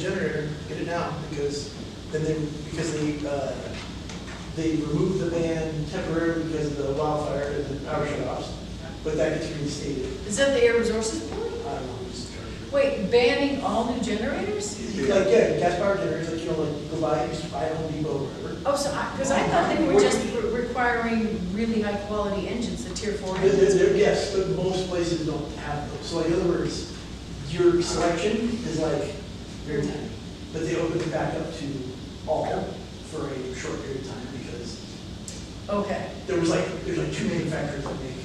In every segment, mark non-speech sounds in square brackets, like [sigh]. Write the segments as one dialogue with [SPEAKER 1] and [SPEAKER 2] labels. [SPEAKER 1] generator, get it now, because then they, because they, uh, they removed the ban temporarily because of the wildfire and the power shutoffs, but that gets reinstated, Um,
[SPEAKER 2] Is that the air resources board?
[SPEAKER 1] I don't know, just.
[SPEAKER 2] Wait, banning all new generators?
[SPEAKER 1] Like, yeah, gas power generators, like, you know, like, you go buy, you just buy a Home Depot or whatever.
[SPEAKER 2] Oh, so I, because I thought they were just re- requiring really high-quality engines, the tier four
[SPEAKER 1] There- there-
[SPEAKER 2] engines.
[SPEAKER 1] there- yes, but most places don't have those, so like, in other words, your selection is like, very tiny, but they open it back up to all for a short period of time, because
[SPEAKER 2] Okay,
[SPEAKER 1] there was like, there's like two manufacturers that make,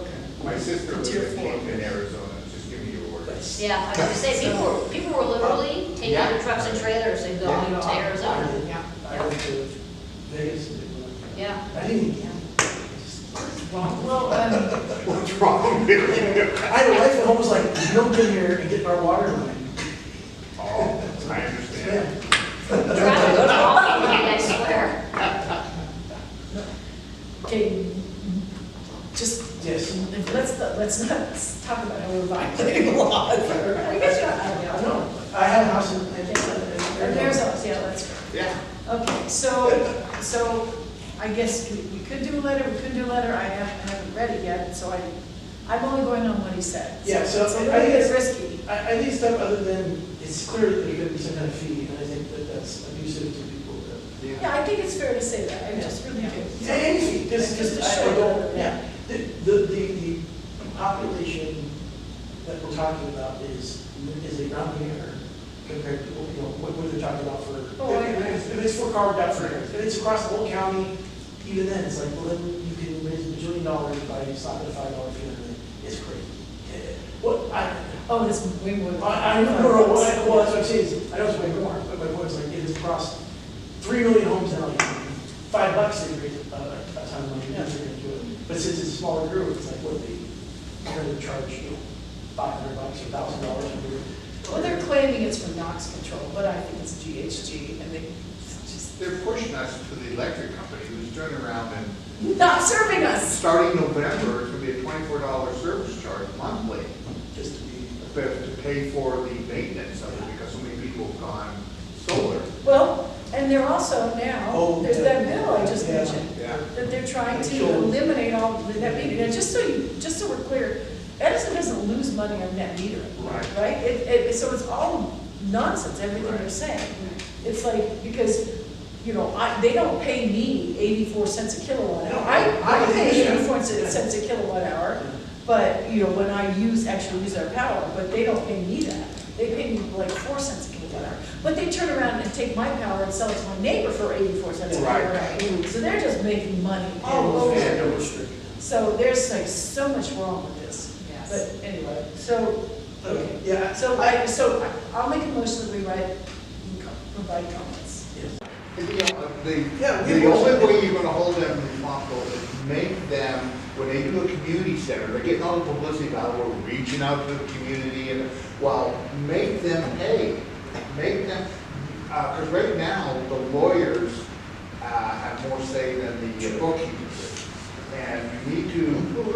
[SPEAKER 2] okay.
[SPEAKER 3] My sister lives
[SPEAKER 2] Tier
[SPEAKER 3] in
[SPEAKER 2] four.
[SPEAKER 3] Camden, Arizona, just give me your word.
[SPEAKER 1] that's.
[SPEAKER 4] Yeah, I was gonna say, people, were- people were literally taking their trucks and trailers and going to Arizona.
[SPEAKER 2] Yeah.
[SPEAKER 1] I went to Vegas. and did one.
[SPEAKER 4] Yeah.
[SPEAKER 1] I didn't,
[SPEAKER 2] Well, um,
[SPEAKER 3] What's wrong with
[SPEAKER 1] I had a wife at home was like, don't get here and get our water line.
[SPEAKER 3] Oh, I understand.
[SPEAKER 4] Traffic was awful, I swear.
[SPEAKER 2] okay, just,
[SPEAKER 1] Yes.
[SPEAKER 2] let's, not- let's not talk about how we're [laughs] violating laws. I guess you're, I don't know.
[SPEAKER 1] No, I had a house in, I think,
[SPEAKER 2] Or
[SPEAKER 1] in
[SPEAKER 2] There's,
[SPEAKER 1] Arizona.
[SPEAKER 2] us, yeah, that's right.
[SPEAKER 3] Yeah.
[SPEAKER 2] Okay, so, so I guess we we could do a letter, we could do a letter, I haven't, I haven't read it yet, so I, I'm only going on what he said.
[SPEAKER 1] Yeah, so
[SPEAKER 2] It's a
[SPEAKER 1] I
[SPEAKER 2] little
[SPEAKER 1] think
[SPEAKER 2] bit
[SPEAKER 1] it's-
[SPEAKER 2] risky.
[SPEAKER 1] I, I think stuff other than, it's clear that there's gonna be some kind of fee, and I think that that's abusive to people. that-
[SPEAKER 2] Yeah, I think it's fair to say that, I just really do.
[SPEAKER 1] Yeah, Any fee, just, just,
[SPEAKER 2] Just a
[SPEAKER 1] I I
[SPEAKER 2] short-
[SPEAKER 1] don't, yeah. The, the, the the population that we're talking about is, is a rounding error compared to, you know, what, what they're talking about for.
[SPEAKER 2] Oh, I- I-
[SPEAKER 1] If if it's for carved out for, if it's across the whole county, even then, it's like, well, then you can raise a million dollars by stopping a five dollar fee, on it. it's crazy. Eh, What, I,
[SPEAKER 2] Oh, this is way more. than-
[SPEAKER 1] I, I don't know, what I- well, that's what I'm saying, is, I know it's way more, but my point is like, it is across three million homes now, like, five bucks they raise a, a ton of money, now they're gonna do it. But since it's a smaller group, it's like, what, they, they're gonna charge, you know, five hundred bucks or thousand dollars a year.
[SPEAKER 2] Well, they're claiming it's for NOx control, but I think it's GHG, and they just,
[SPEAKER 3] They're pushing us to the electric company who's turning around and
[SPEAKER 2] not serving us.
[SPEAKER 3] starting November, it's gonna be a twenty-four dollar service charge monthly.
[SPEAKER 1] Just to be,
[SPEAKER 3] but to pay for the maintenance of it because so many people have gone solar.
[SPEAKER 2] Well, and they're also now,
[SPEAKER 1] Oh,
[SPEAKER 2] there's that bill I just
[SPEAKER 1] yeah.
[SPEAKER 2] mentioned.
[SPEAKER 3] Yeah.
[SPEAKER 2] that they're trying to
[SPEAKER 1] Sure.
[SPEAKER 2] eliminate all the net metering. And just so you, just so we're clear, Edison doesn't lose money on net metering.
[SPEAKER 3] Right.
[SPEAKER 2] Right? It, it, so it's all nonsense, everything they're
[SPEAKER 3] Right.
[SPEAKER 2] saying. It's like, because, you know, I, they don't pay me eighty-four cents a kilowatt
[SPEAKER 1] No,
[SPEAKER 2] hour. I, I
[SPEAKER 1] I
[SPEAKER 2] pay
[SPEAKER 1] understand.
[SPEAKER 2] eighty-four cents a kilowatt hour, but, you know, when I use, actually use our power, but they don't pay me that. They pay me like four cents a kilowatt hour. But they turn around and take my power and sell it to my neighbor for eighty-four cents a
[SPEAKER 3] Right.
[SPEAKER 2] kilowatt hour. So they're just making money.
[SPEAKER 1] oh,
[SPEAKER 2] And-
[SPEAKER 1] okay, no restriction.
[SPEAKER 2] So there's like so much wrong with this.
[SPEAKER 4] Yes.
[SPEAKER 2] But anyway, so,
[SPEAKER 1] Okay,
[SPEAKER 2] okay.
[SPEAKER 1] yeah,
[SPEAKER 2] So I, so I- I'll make a motion that we write, and co- provide comments.
[SPEAKER 3] And, you know, uh, The,
[SPEAKER 1] Yeah, we-
[SPEAKER 3] the only way you're gonna hold them responsible is make them, when they do a community center, they're getting all the publicity about, we're reaching out to the community and, well, make them pay. Make them, uh 'cause cause right now, the lawyers, uh, have more say than the bookkeepers. And you need to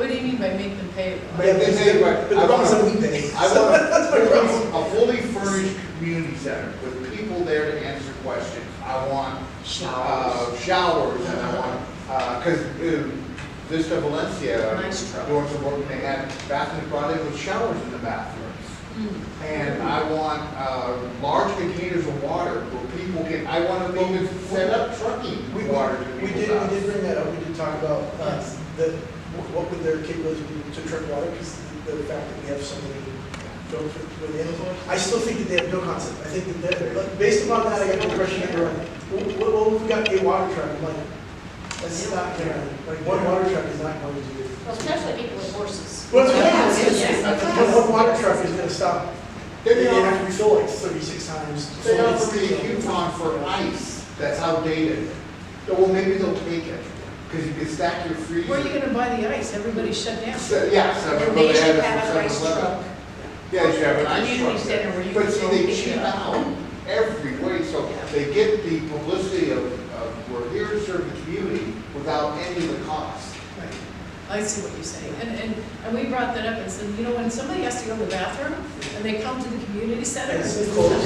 [SPEAKER 2] What do you mean by make them pay?
[SPEAKER 3] But they say,
[SPEAKER 1] But
[SPEAKER 3] right,
[SPEAKER 1] the
[SPEAKER 3] I
[SPEAKER 1] problem is
[SPEAKER 3] want-
[SPEAKER 1] that we pay.
[SPEAKER 3] I want a
[SPEAKER 1] problem.
[SPEAKER 3] fully furnished community center with people there to answer questions. I want. Showers. Showers, and I want, uh, cause uh, Vista Valencia,
[SPEAKER 2] Nice truck.
[SPEAKER 3] doing some work, and they had bathrooms brought in with showers in the bathrooms.
[SPEAKER 1] Hmm.
[SPEAKER 3] And I want, uh, large containers of water where people can, I want to be able to set up
[SPEAKER 1] We,
[SPEAKER 3] trucking water to
[SPEAKER 1] we did,
[SPEAKER 3] people's
[SPEAKER 1] we did
[SPEAKER 3] houses.
[SPEAKER 1] bring that up, we did talk about, uh,
[SPEAKER 2] Yes.
[SPEAKER 1] the, what would their capability be to truck water, because the fact that we have so many folks with with influence. I still think that they have no concept, I think that they're, but based upon that, I got the impression that they're like, well, well, well, we've got a water truck, I'm like, that's not gonna, like, one water truck is not going to do. it.
[SPEAKER 4] Well, Especially people with horses.
[SPEAKER 1] Well, that's what I'm
[SPEAKER 4] Yeah,
[SPEAKER 1] saying.
[SPEAKER 4] yeah.
[SPEAKER 1] One, one water truck is gonna stop,
[SPEAKER 3] Then
[SPEAKER 1] they
[SPEAKER 3] they
[SPEAKER 1] have
[SPEAKER 3] offer
[SPEAKER 1] to refill like thirty-six times.
[SPEAKER 3] They offered me a coupon for ice that's outdated. Oh, Well, maybe they'll take it, because you can stack your freezer.
[SPEAKER 2] Where are you gonna buy the ice? Everybody shut down.
[SPEAKER 3] So, Yeah, seven, but
[SPEAKER 4] And they
[SPEAKER 3] they had
[SPEAKER 4] should
[SPEAKER 3] it
[SPEAKER 4] have an
[SPEAKER 3] from
[SPEAKER 4] ice
[SPEAKER 3] seven eleven.
[SPEAKER 4] truck.
[SPEAKER 3] Yeah, you should have an ice
[SPEAKER 4] Community
[SPEAKER 3] truck
[SPEAKER 4] center where
[SPEAKER 3] there.
[SPEAKER 4] you
[SPEAKER 3] But
[SPEAKER 4] can
[SPEAKER 3] see,
[SPEAKER 4] go
[SPEAKER 3] they
[SPEAKER 4] pick it
[SPEAKER 3] cheap
[SPEAKER 4] up.
[SPEAKER 3] out every way, so they get the publicity of, of, we're here to serve the community without any of the cost.
[SPEAKER 2] Right. I see what you're saying. And, and, and we brought that up and said, you know, when somebody has to go to the bathroom and they come to the community center,
[SPEAKER 1] Yes, of course.